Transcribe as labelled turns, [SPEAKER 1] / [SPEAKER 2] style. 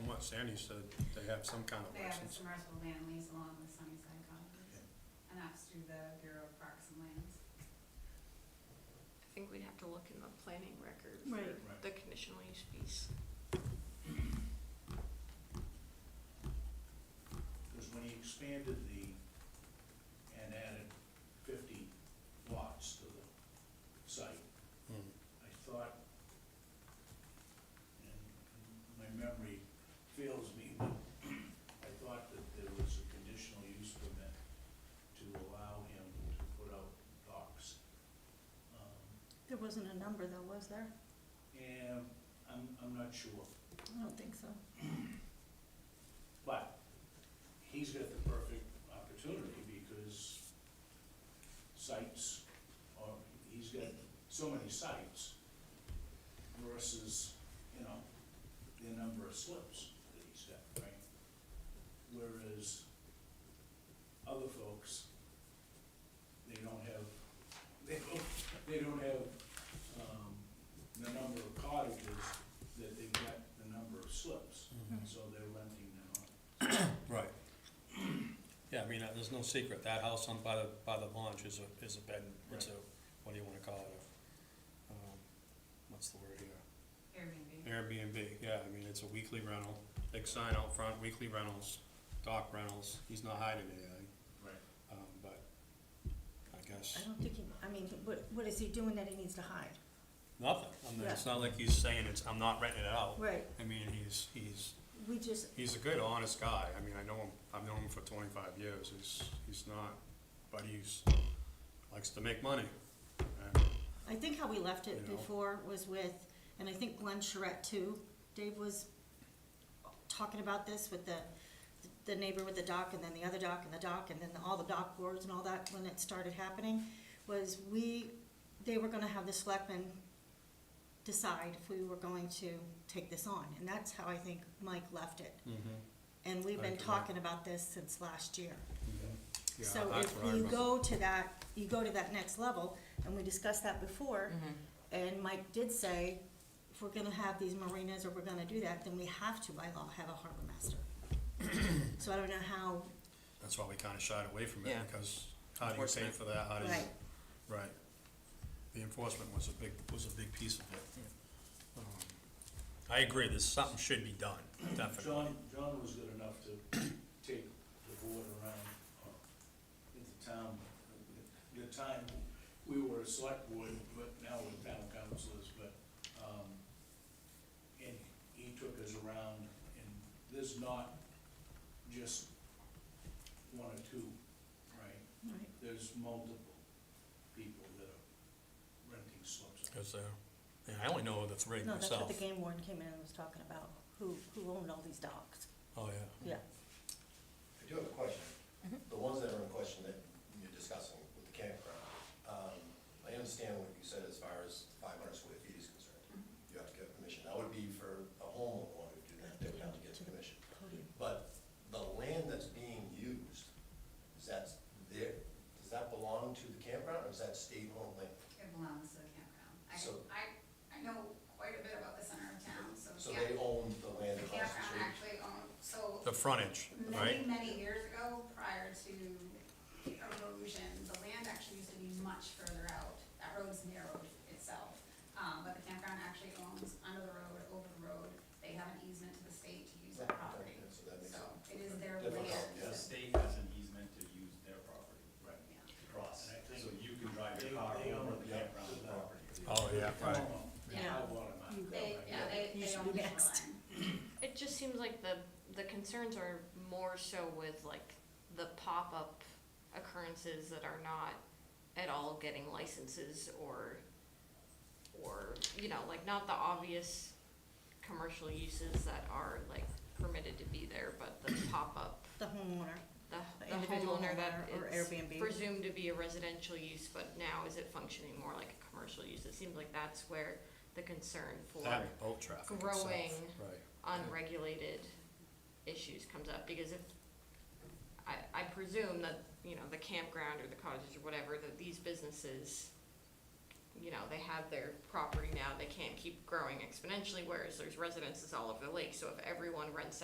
[SPEAKER 1] what Sandy said, they have some kind of
[SPEAKER 2] They have a
[SPEAKER 1] license.
[SPEAKER 2] submersible land lease along the Sunnyside Commons, and that's through the Bureau of Parks and Lands.
[SPEAKER 3] I think we'd have to look in the planning record
[SPEAKER 4] Right.
[SPEAKER 3] for the conditional use piece.
[SPEAKER 5] Because when he expanded the, and added fifty lots to the site,
[SPEAKER 1] Hmm.
[SPEAKER 5] I thought, and my memory fails me, but I thought that there was a conditional use permit to allow him to put out docks. Um,
[SPEAKER 4] There wasn't a number though, was there?
[SPEAKER 5] And I'm, I'm not sure,
[SPEAKER 4] I don't think so.
[SPEAKER 5] but he's got the perfect opportunity because sites, or he's got so many sites versus, you know, the number of slips that he's got, right? Whereas other folks, they don't have, they don't, they don't have, um, the number of cottages that they've got the number of slips,
[SPEAKER 1] Mhm.
[SPEAKER 5] so they're renting them out.
[SPEAKER 1] Right. Yeah, I mean, uh, there's no secret, that house on, by the, by the launch is a, is a bed, it's a, what do you wanna call it? A, um, What's the word here?
[SPEAKER 2] Airbnb.
[SPEAKER 1] Airbnb, yeah, I mean, it's a weekly rental, big sign out front, weekly rentals, dock rentals, he's not hiding anything,
[SPEAKER 5] Right.
[SPEAKER 1] um, but I guess,
[SPEAKER 4] I don't think he, I mean, what, what is he doing that he needs to hide?
[SPEAKER 1] nothing. I mean, it's not like he's saying it's, I'm not renting it out.
[SPEAKER 4] Right,
[SPEAKER 1] I mean, he's, he's
[SPEAKER 4] we just,
[SPEAKER 1] He's a good, honest guy. I mean, I know him, I've known him for twenty-five years. He's, he's not, but he's, likes to make money. And
[SPEAKER 4] I think how we left it
[SPEAKER 1] You know.
[SPEAKER 4] before was with, and I think Glenn Charette too, Dave was talking about this with the, the neighbor with the dock and then the other dock and the dock and then all the dock boards and all that when it started happening, was we, they were gonna have the selectmen decide if we were going to take this on, and that's how I think Mike left it.
[SPEAKER 6] Mm-hmm.
[SPEAKER 4] And we've been
[SPEAKER 1] Right, right.
[SPEAKER 4] talking about this since last year.
[SPEAKER 1] Yeah,
[SPEAKER 4] So
[SPEAKER 1] that's
[SPEAKER 4] if
[SPEAKER 1] what I
[SPEAKER 4] you
[SPEAKER 1] remember.
[SPEAKER 4] go to that, you go to that next level, and we discussed that before,
[SPEAKER 1] Mm-hmm.
[SPEAKER 4] and Mike did say, if we're gonna have these marinas or we're gonna do that, then we have to by law have a harbor master. So I don't know how,
[SPEAKER 1] That's why we kinda shied away from it
[SPEAKER 6] Yeah.
[SPEAKER 1] because how do you pay
[SPEAKER 6] Enforcement.
[SPEAKER 1] for that? How do you,
[SPEAKER 4] right,
[SPEAKER 1] right. The enforcement was a big, was a big piece of it. Um, I agree, there's, something should be done, definitely.
[SPEAKER 5] John, John was good enough to take the board around, uh, at the town, the time, we were a select board, but now we're town councilors, but, um, and he took us around, and there's not just one or two, right?
[SPEAKER 4] right,
[SPEAKER 5] There's multiple people that are renting slips.
[SPEAKER 1] Cause, uh, yeah, I only know the three
[SPEAKER 4] no, that's what
[SPEAKER 1] myself.
[SPEAKER 4] the game warden came in and was talking about, who, who owned all these docks,
[SPEAKER 1] Oh, yeah.
[SPEAKER 4] yeah.
[SPEAKER 7] I do have a question.
[SPEAKER 2] Mm-hmm.
[SPEAKER 7] The ones that are in question that you're discussing with the campground, um, I understand what you said as far as five hundred square feet is concerned.
[SPEAKER 2] Mm-hmm.
[SPEAKER 7] You have to get permission. That would be for a homeowner wanting to do that, they would have to get
[SPEAKER 4] To the
[SPEAKER 7] permission.
[SPEAKER 4] podium.
[SPEAKER 7] But the land that's being used, is that there, does that belong to the campground or is that state-owned land?
[SPEAKER 2] It belongs to the campground. I,
[SPEAKER 7] So-
[SPEAKER 2] I, I know quite a bit about the center of town, so
[SPEAKER 7] So
[SPEAKER 2] yeah.
[SPEAKER 7] they own the land
[SPEAKER 2] The
[SPEAKER 7] across the
[SPEAKER 2] campground
[SPEAKER 7] street?
[SPEAKER 2] actually owned, so
[SPEAKER 1] The frontage,
[SPEAKER 2] many,
[SPEAKER 1] right?
[SPEAKER 2] many years ago, prior to erosion, the land actually used to be much further out. That road's narrowed itself, um, but the campground actually owns under the road, over the road. They have an easement to the state to use that
[SPEAKER 7] Right,
[SPEAKER 2] property.
[SPEAKER 7] okay, so that makes
[SPEAKER 2] So it
[SPEAKER 7] it
[SPEAKER 2] is their
[SPEAKER 7] difficult,
[SPEAKER 2] land.
[SPEAKER 7] yeah.
[SPEAKER 8] The state has an easement to use their property. Right.
[SPEAKER 2] Yeah.
[SPEAKER 7] Across.
[SPEAKER 5] And I think
[SPEAKER 8] So you can drive
[SPEAKER 5] They-
[SPEAKER 8] your car
[SPEAKER 5] they own
[SPEAKER 8] over the
[SPEAKER 5] the-
[SPEAKER 8] campground
[SPEAKER 5] the-
[SPEAKER 8] property.
[SPEAKER 1] Oh, yeah, right.
[SPEAKER 2] Yeah.
[SPEAKER 5] I bought them out.
[SPEAKER 4] You
[SPEAKER 2] They, yeah, they,
[SPEAKER 4] You
[SPEAKER 2] they
[SPEAKER 4] should
[SPEAKER 2] own the
[SPEAKER 4] be next.
[SPEAKER 2] shoreline.
[SPEAKER 3] It just seems like the, the concerns are more so with like the pop-up occurrences that are not at all getting licenses or, or, you know, like not the obvious commercial uses that are like permitted to be there, but the pop-up,
[SPEAKER 4] The homeowner,
[SPEAKER 3] the
[SPEAKER 4] The
[SPEAKER 3] the
[SPEAKER 4] individual
[SPEAKER 3] homeowner that
[SPEAKER 4] homeowner or
[SPEAKER 3] it's
[SPEAKER 4] Airbnb.
[SPEAKER 3] presumed to be a residential use, but now is it functioning more like a commercial use? It seems like that's where the concern for
[SPEAKER 1] That and boat traffic itself,
[SPEAKER 3] growing
[SPEAKER 1] right.
[SPEAKER 3] unregulated issues comes up, because if, I, I presume that, you know, the campground or the cottages or whatever, that these businesses, you know, they have their property now, they can't keep growing exponentially, whereas there's residences all over the lake, so if everyone rents